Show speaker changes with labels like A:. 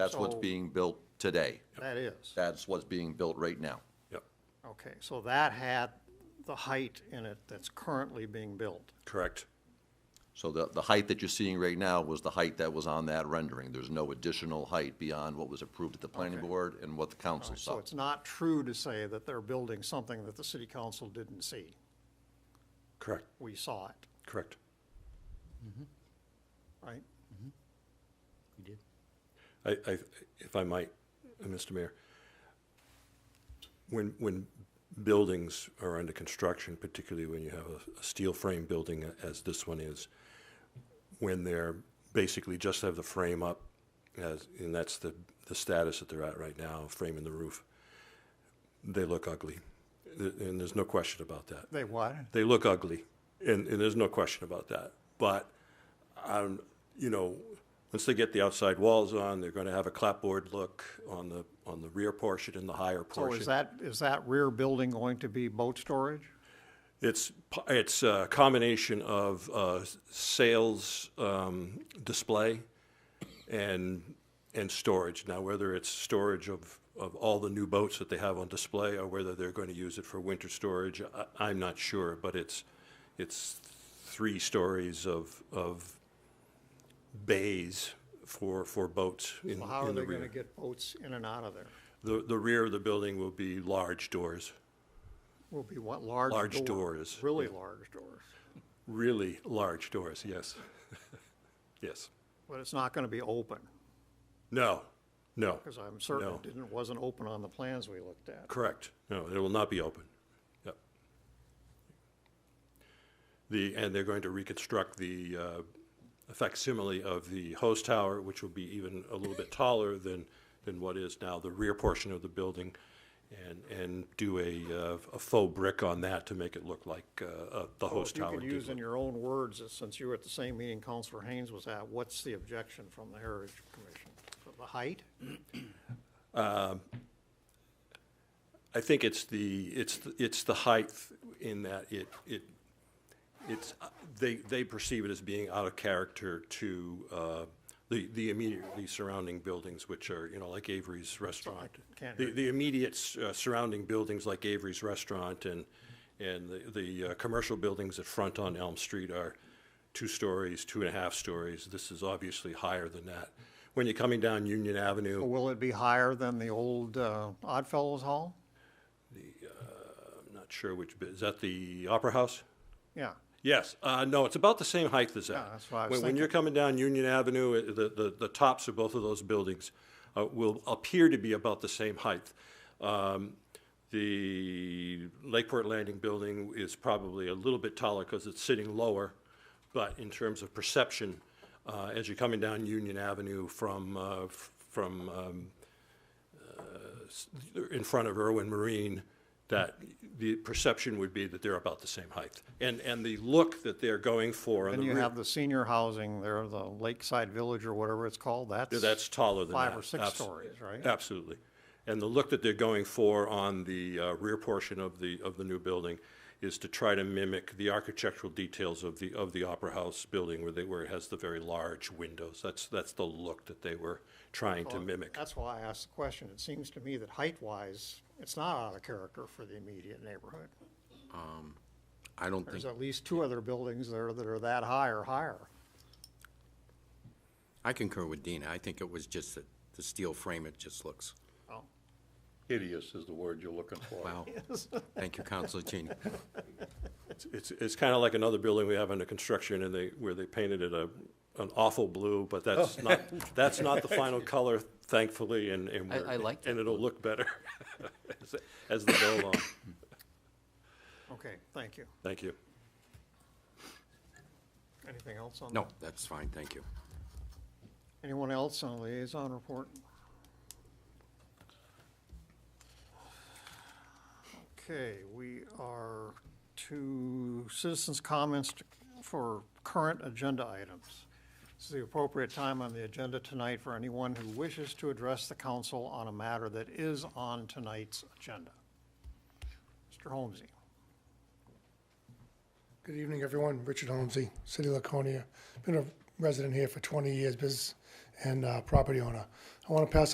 A: That's what's
B: So-
A: being built today.
B: That is,
A: That's what's being built right now.
C: Yep,
B: okay, so that had the height in it that's currently being built.
C: correct.
A: So the, the height that you're seeing right now was the height that was on that rendering. There's no additional height beyond what was approved at the planning board and what the council
B: So
A: saw.
B: it's not true to say that they're building something that the city council didn't see.
C: Correct,
B: We saw it,
C: correct.
B: right?
C: I, I, if I might, uh, Mr. Mayor, when, when buildings are under construction, particularly when you have a, a steel frame building a- as this one is, when they're basically just have the frame up, as, and that's the, the status that they're at right now, frame in the roof, they look ugly. Th- And there's no question about that.
B: They what?
C: they look ugly, and, and there's no question about that. But, um, you know, once they get the outside walls on, they're going to have a clapboard look on the on the rear portion and the higher
B: So
C: portion.
B: is that, is that rear building going to be boat storage?
C: It's p- it's a combination of uh, s- sales um, display and and storage. Now, whether it's storage of of all the new boats that they have on display, or whether they're going to use it for winter storage, I, I'm not sure. But it's it's three stories of of bays for for boats in,
B: Well, How are
C: in the
B: they gonna
C: rear.
B: get boats in and out of there?
C: The the rear of the building will be large doors,
B: Will be what, large doors?
C: Large doors.
B: Really large doors,
C: really large doors. Yes, yes.
B: but it's not gonna be open,
C: No, no,
B: because I'm certain
C: No.
B: it didn't, wasn't open on the plans we looked at.
C: correct. No, it will not be open. Yep. The, and they're going to reconstruct the uh, facsimile of the host tower, which will be even a little bit taller than, than what is now the rear portion of the building, and, and do a, uh, a faux brick on that to make it look like uh, uh, the
B: Well,
C: host
B: If
C: tower
B: you
C: did
B: could use in
C: look.
B: your own words, uh, since you were at the same meeting Counselor Haynes was at, what's the objection from the Heritage Commission? The height?
C: I think it's the, it's, the- it's the height in that it, it, it's, they, they perceive it as being out of character to uh, the, the immediately surrounding buildings, which are, you know, like Avery's Restaurant.
B: can't
C: The,
B: hear
C: the immediate s- uh, surrounding buildings like Avery's Restaurant and, and the, the uh, commercial buildings that front on Elm Street are two stories, two and a half stories. This is obviously higher than that. When you're coming down Union Avenue,
B: Will it be higher than the old uh, Oddfellows Hall?
C: I'm not sure which, bit- is that the Opera House?
B: Yeah,
C: Yes, uh, no, it's about the same height as that.
B: Yeah, Ah, that's what I was
C: When- When you're coming down Union Avenue, uh, the, the, the tops of both of those buildings uh, will appear to be about the same height. Um, The Lakeport Landing building is probably a little bit taller because it's sitting lower, but in terms of perception, uh, as you're coming down Union Avenue from, uh, f- from um, in front of Irwin Marine, that the perception would be that they're about the same height. And, and the look that they're going for on
B: and
C: the
B: you
C: rear-
B: have the senior housing there, the Lakeside Village or whatever it's called, that's.
C: that's taller than
B: Five
C: that.
B: or six
C: Abs-
B: stories, right?
C: Absolutely. And the look that they're going for on the uh, rear portion of the, of the new building is to try to mimic the architectural details of the, of the Opera House building where they, where it has the very large windows. That's, that's the look that they were trying to mimic.
B: That's why I asked the question. It seems to me that height-wise, it's not out of character for the immediate neighborhood.
D: I don't
B: There's
D: think,
B: at least two other buildings there that are that high or higher.
D: I concur with Dina. I think it was just that the steel frame, it just looks,
B: Oh,
E: hideous is the word you're looking for.
D: wow. Thank you, Counselor Cheney.
C: It's, it's kind of like another building we have under construction and they, where they painted it a, an awful blue, but
D: Oh.
C: that's not, that's not the final color, thankfully, and, and
D: I-
C: we're.
D: I like
C: And it'll look better as- as they go along.
B: okay, thank you.
C: Thank you.
B: Anything else on?
D: No, that's fine, thank you.
B: Anyone else on liaison report? Okay, we are to citizens' comments to- for current agenda items. This is the appropriate time on the agenda tonight for anyone who wishes to address the council on a matter that is on tonight's agenda. Mr. Holmesy,
F: Good evening, everyone. Richard Holmesy, City of Laconia. Been a resident here for 20 years, business and uh, property owner. I want to pass